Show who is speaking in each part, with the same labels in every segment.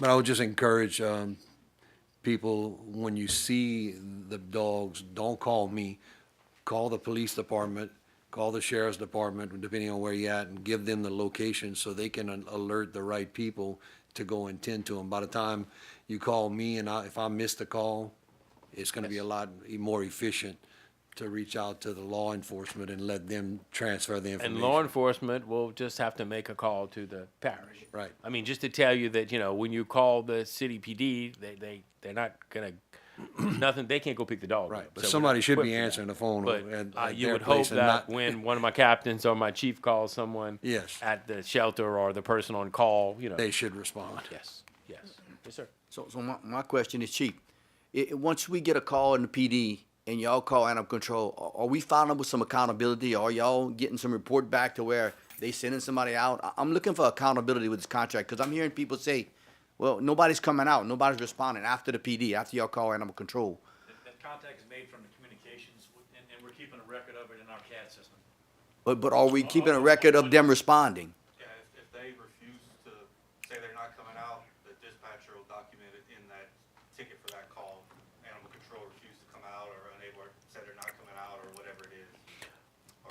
Speaker 1: But I would just encourage um, people, when you see the dogs, don't call me. Call the police department, call the sheriff's department, depending on where you're at, and give them the location so they can al- alert the right people to go and tend to them. By the time you call me and I, if I miss the call, it's gonna be a lot e- more efficient to reach out to the law enforcement and let them transfer the information.
Speaker 2: And law enforcement will just have to make a call to the parish.
Speaker 1: Right.
Speaker 2: I mean, just to tell you that, you know, when you call the city PD, they, they, they're not gonna, nothing, they can't go pick the dog. up.
Speaker 1: Right, but
Speaker 2: So we're
Speaker 1: somebody
Speaker 2: not
Speaker 1: should
Speaker 2: equipped
Speaker 1: be
Speaker 2: for that.
Speaker 1: answering the phone
Speaker 2: But
Speaker 1: at-
Speaker 2: uh,
Speaker 1: at
Speaker 2: you
Speaker 1: their
Speaker 2: would hope
Speaker 1: place and not-
Speaker 2: that when one of my captains or my chief calls someone.
Speaker 1: Yes.
Speaker 2: At the shelter or the person on call, you know.
Speaker 1: They should respond.
Speaker 2: Yes, yes, yes, sir.
Speaker 3: So, so my, my question is, Chief, i- i- once we get a call in the PD and y'all call animal control, a- are we following with some accountability? Are y'all getting some report back to where they sending somebody out? I- I'm looking for accountability with this contract, cause I'm hearing people say, well, nobody's coming out, nobody's responding after the PD, after y'all call animal control.
Speaker 4: That, that contact is made from the communications, w- and, and we're keeping a record of it in our CAD system.
Speaker 3: But, but are we keeping a record of them responding?
Speaker 5: Yeah, if, if they refuse to say they're not coming out, the dispatcher will document it in that ticket for that call. Animal control refused to come out or unable, or said they're not coming out or whatever it is.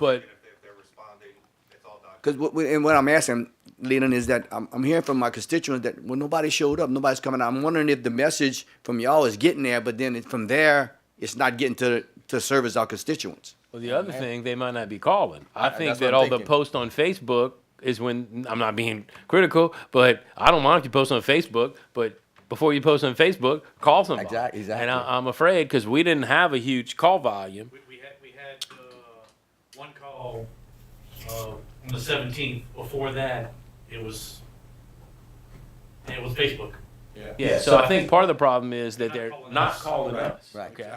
Speaker 5: Or
Speaker 2: But-
Speaker 5: even If they- if they're responding, it's all documented.
Speaker 3: Because what, we- and what I'm asking, Leland, is that I'm, I'm hearing from my constituents that well, nobody showed up, nobody's coming out. I'm wondering if the message from y'all is getting there, but then it- from there, it's not getting to to service our constituents.
Speaker 2: Well, the other thing, they might not be calling. I think
Speaker 3: that's what
Speaker 2: that
Speaker 3: I'm
Speaker 2: all the
Speaker 3: thinking.
Speaker 2: posts on Facebook is when I'm not being critical, but I don't mind if you post on Facebook, but before you post on Facebook, call somebody.
Speaker 6: Exact- exactly.
Speaker 2: And I, I'm afraid because we didn't have a huge call volume.
Speaker 4: We, we had, we had, uh, one call, uh, on the seventeenth. Before that, it was, it was Facebook.
Speaker 2: Yeah. So I think part of the problem is that they're not calling us.
Speaker 6: Right.
Speaker 2: Okay.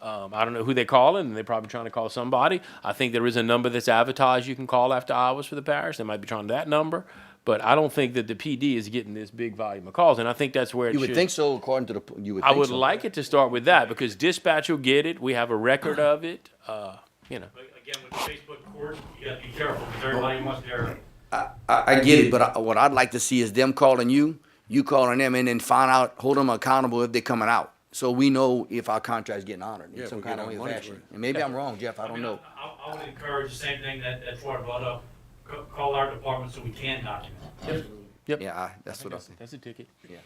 Speaker 2: Um, I don't know who they calling. and they're probably trying to call somebody. I think there is a number that's advertised you can call after hours for the parish. They might be trying that number, but I don't think that the PD is getting this big volume of calls, and I think that's where it
Speaker 6: You
Speaker 2: should.
Speaker 6: would think so, according to the, p- you would
Speaker 2: I
Speaker 6: think
Speaker 2: would
Speaker 6: so.
Speaker 2: like it to start with that because dispatch will get it. We have a record of it. Uh, you know,
Speaker 4: But again, with the Facebook court, you gotta be careful, because everybody wants their,
Speaker 3: I, I get it, but I, what I'd like to see is them calling you, you calling them, and then find out, hold them accountable if they're coming out. So we know if our contract's getting honored
Speaker 1: Yeah,
Speaker 3: in some
Speaker 1: we
Speaker 3: kind
Speaker 1: get
Speaker 3: of
Speaker 1: our
Speaker 3: way or
Speaker 1: money's
Speaker 3: fashion.
Speaker 1: worth.
Speaker 3: And maybe I'm wrong, Jeff, I
Speaker 4: I
Speaker 3: don't
Speaker 4: mean, I,
Speaker 3: know.
Speaker 4: I I would encourage the same thing that, that Ford brought up, C- call our department so we can document.
Speaker 3: Yeah, I- that's what I
Speaker 2: that's,
Speaker 3: think.
Speaker 2: that's a ticket. Yeah.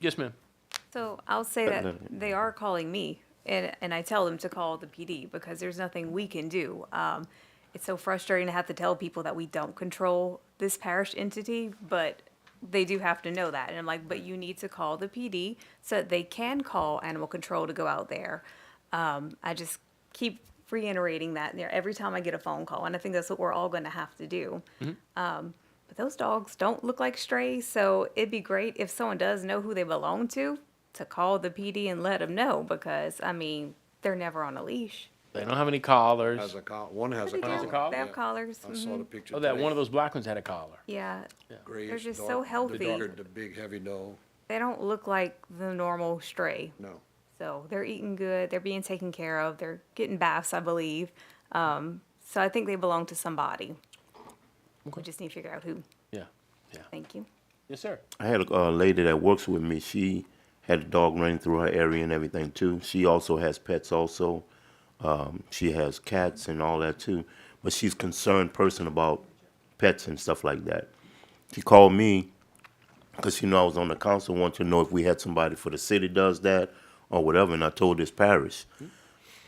Speaker 2: Yes, ma'am.
Speaker 7: So I'll say that they are calling me and, and I tell them to call the PD because there's nothing we can do. Um, it's so frustrating to have to tell people that we don't control this parish entity, but they do have to know that. And I'm like, but you need to call the PD so that they can call animal control to go out there. Um, I just keep reiterating that there every time I get a phone call, and I think that's what we're all going to have to do. But those dogs don't look like strays, so it'd be great if someone does know who they belong to to call the PD and let them know because I mean they're never on a leash.
Speaker 2: They don't have any collars.
Speaker 1: Has a col, one has a
Speaker 7: They
Speaker 1: collar.
Speaker 7: do. They have
Speaker 1: yeah.
Speaker 7: collars.
Speaker 1: I saw the
Speaker 7: mhm.
Speaker 1: picture.
Speaker 2: oh, that
Speaker 1: today.
Speaker 2: one of those black ones had a collar.
Speaker 7: Yeah,
Speaker 1: Grayish,
Speaker 7: They're just so
Speaker 1: dark, the
Speaker 7: healthy.
Speaker 1: darker, The big heavy dog,
Speaker 7: they don't look like the normal stray.
Speaker 1: no.
Speaker 7: So they're eating good. They're being taken care of. They're getting baths, I believe. Um, so I think they belong to somebody. We just need to figure out who.
Speaker 2: Yeah.
Speaker 7: Thank you.
Speaker 2: Yes, sir.
Speaker 8: I had a uh, lady that works with me. She had a dog running through her area and everything too. She also has pets also. Um, she has cats and all that too. But she's concerned person about pets and stuff like that. She called me because she knew I was on the council, wanted to know if we had somebody for the city does that or whatever. And I told this parish.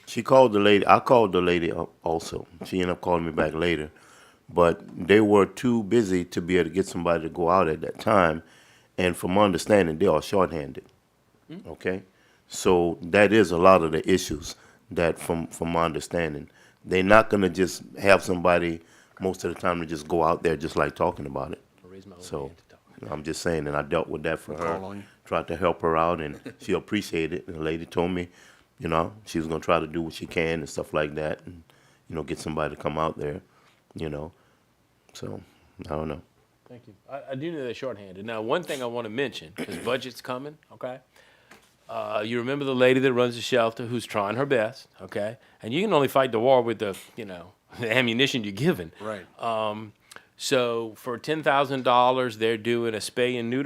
Speaker 8: She called the lady. I called the lady up also. She ended up calling me back later, but they were too busy to be able to get somebody to go out at that time. And from my understanding, they are shorthanded. Okay, so that is a lot of the issues that, from from my understanding, they're not gonna just have somebody most of the time to just go out there just like talking about it.
Speaker 2: I'll raise my own
Speaker 8: So
Speaker 2: hand to talk.
Speaker 8: I'm just saying, and I dealt with that for
Speaker 1: call on you.
Speaker 8: her. Tried to help her out, and she appreciated it. And the lady told me, you know, she was gonna try to do what she can and stuff like that, and you know, get somebody to come out there, you know. So I don't know.
Speaker 2: Thank you. I, I do know they're shorthanded. Now, one thing I want to mention, because budget's coming, okay? Uh, you remember the lady that runs the shelter who's trying her best, okay? And you can only fight the war with the, you know, the ammunition you're given.
Speaker 1: Right.
Speaker 2: Um, so for $10,000, they're doing a spay and neuter